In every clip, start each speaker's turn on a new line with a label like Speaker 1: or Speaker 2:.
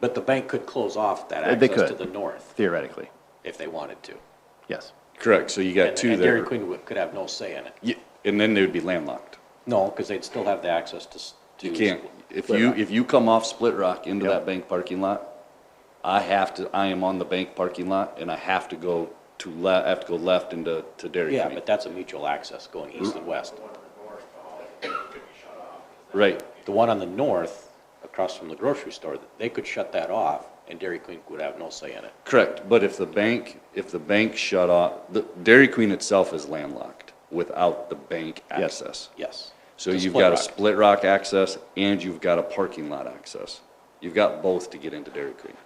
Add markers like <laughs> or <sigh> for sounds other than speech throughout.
Speaker 1: But the bank could close off that
Speaker 2: Uh, they
Speaker 1: access to
Speaker 2: could.
Speaker 1: the north
Speaker 2: theoretically,
Speaker 1: if they wanted to.
Speaker 2: yes.
Speaker 3: Correct, so you got
Speaker 1: And-
Speaker 3: two
Speaker 1: And Dairy
Speaker 3: there.
Speaker 1: Queen would- could have no say in it.
Speaker 3: Yeah, And then they would be landlocked.
Speaker 1: No, because they'd still have the access to. s- to-
Speaker 3: You can't, if you, if you come off Split Rock into that bank parking lot, I have to, I am on the bank parking lot and I have to go to le, I have to go left into, to Dairy
Speaker 1: Yeah,
Speaker 3: Queen.
Speaker 1: but that's a mutual access going east and west.
Speaker 3: Right,
Speaker 1: The one on the north, across from the grocery store, they could shut that off and Dairy Queen would have no say in it.
Speaker 3: correct, but if the bank, if the bank shut off, the Dairy Queen itself is landlocked without the bank
Speaker 2: Yes.
Speaker 3: access.
Speaker 1: Yes.
Speaker 3: So
Speaker 1: Just
Speaker 3: you've
Speaker 1: Split
Speaker 3: got a
Speaker 1: Rock.
Speaker 3: Split Rock access and you've got a parking lot access. You've got both to get into Dairy Queen.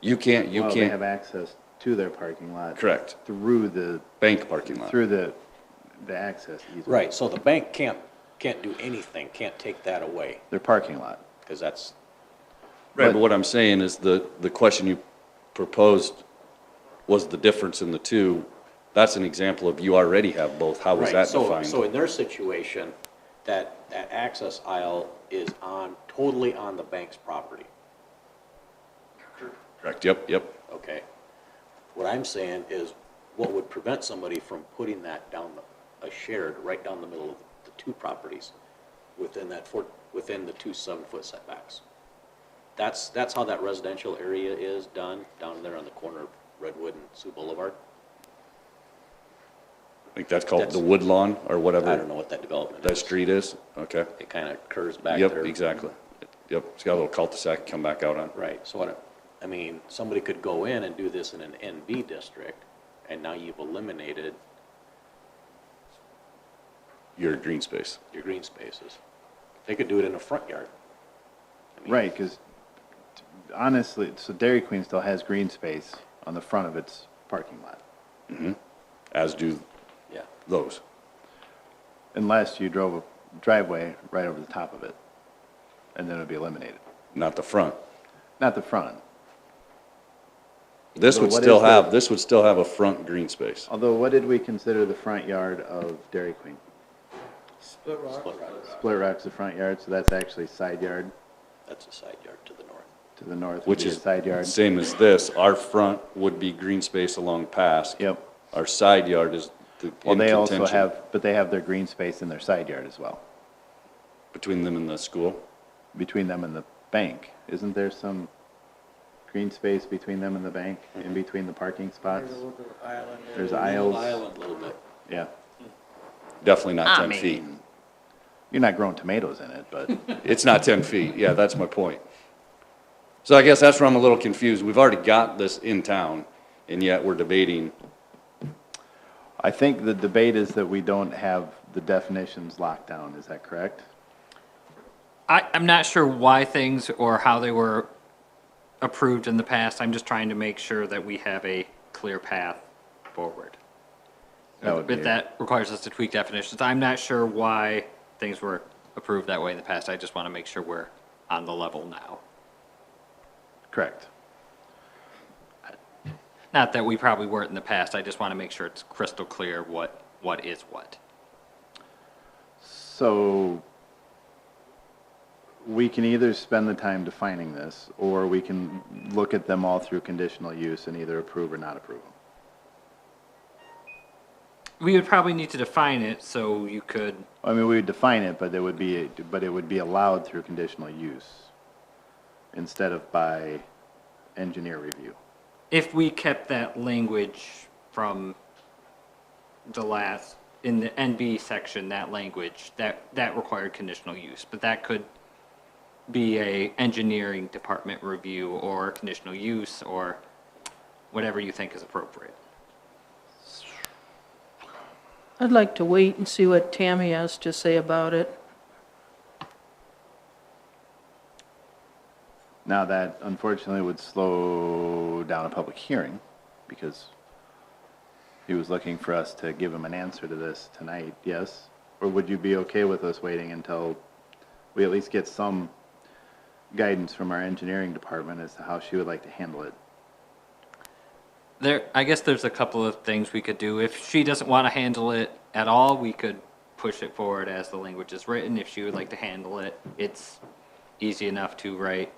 Speaker 3: You can't, you
Speaker 2: Well, they have
Speaker 3: can't,
Speaker 2: access to their parking lot.
Speaker 3: correct,
Speaker 2: Through the,
Speaker 3: bank parking lot.
Speaker 2: through the, the access easement.
Speaker 1: Right, so the bank can't, can't do anything, can't take that away,
Speaker 2: Their parking lot.
Speaker 1: because that's,
Speaker 3: Right,
Speaker 2: But-
Speaker 3: but what I'm saying is the, the question you proposed was the difference in the two. That's an example of you already have both. How was
Speaker 1: right,
Speaker 3: that
Speaker 1: so, so
Speaker 3: defined?
Speaker 1: in their situation, that, that access aisle is on, totally on the bank's property,
Speaker 3: Correct, yep, yep.
Speaker 1: okay? What I'm saying is, what would prevent somebody from putting that down, the- a shared, right down the middle of the two properties, within that four, within the two seven-foot setbacks? That's, that's how that residential area is done, down there on the corner of Redwood and Sioux Boulevard.
Speaker 3: I think that's called the
Speaker 1: That's-
Speaker 3: wood lawn or
Speaker 1: I don't
Speaker 3: whatever
Speaker 1: know what that development is.
Speaker 3: that street is. Okay.
Speaker 1: It kind of curves back
Speaker 3: Yep,
Speaker 1: there.
Speaker 3: exactly. Yep, it's got a little cul-de-sac come back out on.
Speaker 1: Right, so what, I I mean, somebody could go in and do this in an NB district, and now you've eliminated
Speaker 3: Your green space.
Speaker 1: your green spaces. They could do it in a front yard. I mean,
Speaker 2: Right, because honestly, so Dairy Queen still has green space on the front of its parking lot.
Speaker 3: as do
Speaker 1: Yeah,
Speaker 3: those.
Speaker 2: Unless you drove a driveway right over the top of it, and then it'd be eliminated.
Speaker 3: Not the front.
Speaker 2: Not the front,
Speaker 3: This
Speaker 2: So
Speaker 3: would
Speaker 2: what
Speaker 3: still
Speaker 2: is the-
Speaker 3: have, this would still have a front green space.
Speaker 2: although what did we consider the front yard of Dairy Queen?
Speaker 1: split rock,
Speaker 2: Split Rock's the front yard, so that's actually side yard
Speaker 1: that's a side yard to the north.
Speaker 2: to the north. would
Speaker 3: Which
Speaker 2: be a
Speaker 3: is
Speaker 2: Side yard.
Speaker 3: same as this. Our front would be green space along pass.
Speaker 2: Yep.
Speaker 3: Our side yard is the-
Speaker 2: Well,
Speaker 3: in
Speaker 2: they also
Speaker 3: contention
Speaker 2: have, but they have their green space in their side yard as well,
Speaker 3: between them and the school.
Speaker 2: between them and the bank. Isn't there some green space between them and the bank, in between the parking spots? There's aisles,
Speaker 1: Island a little bit.
Speaker 2: yeah.
Speaker 3: Definitely not
Speaker 2: I
Speaker 3: ten feet.
Speaker 2: mean, You're not growing tomatoes in it,
Speaker 3: <laughs>
Speaker 2: but,
Speaker 3: It's not ten feet. Yeah, that's my point. So I guess that's where I'm a little confused. We've already got this in town and yet we're debating.
Speaker 2: I think the debate is that we don't have the definitions locked down, is that correct?
Speaker 4: I, I'm not sure why things or how they were approved in the past. I'm just trying to make sure that we have a clear path forward.
Speaker 2: That would be-
Speaker 4: But that requires us to tweak definitions. I'm not sure why things were approved that way in the past. I just want to make sure we're on the level now.
Speaker 2: Correct.
Speaker 4: Not that we probably weren't in the past. I just want to make sure it's crystal clear what, what is what.
Speaker 2: So we can either spend the time defining this, or we can look at them all through conditional use and either approve or not approve them.
Speaker 4: We would probably need to define it so you could,
Speaker 2: I mean, we would define it, but it would be, but it would be allowed through conditional use instead of by engineer review.
Speaker 4: if we kept that language from the last, in the NB section, that language, that, that required conditional use, but that could be a engineering department review or conditional use or whatever you think is appropriate.
Speaker 5: I'd like to wait and see what Tammy has to say about it.
Speaker 2: Now, that unfortunately would slow down a public hearing because he was looking for us to give him an answer to this tonight, yes? Or would you be okay with us waiting until we at least get some guidance from our engineering department as to how she would like to handle it?
Speaker 4: There, I guess there's a couple of things we could do. If she doesn't want to handle it at all, we could push it forward as the language is written. If she would like to handle it, it's easy enough to write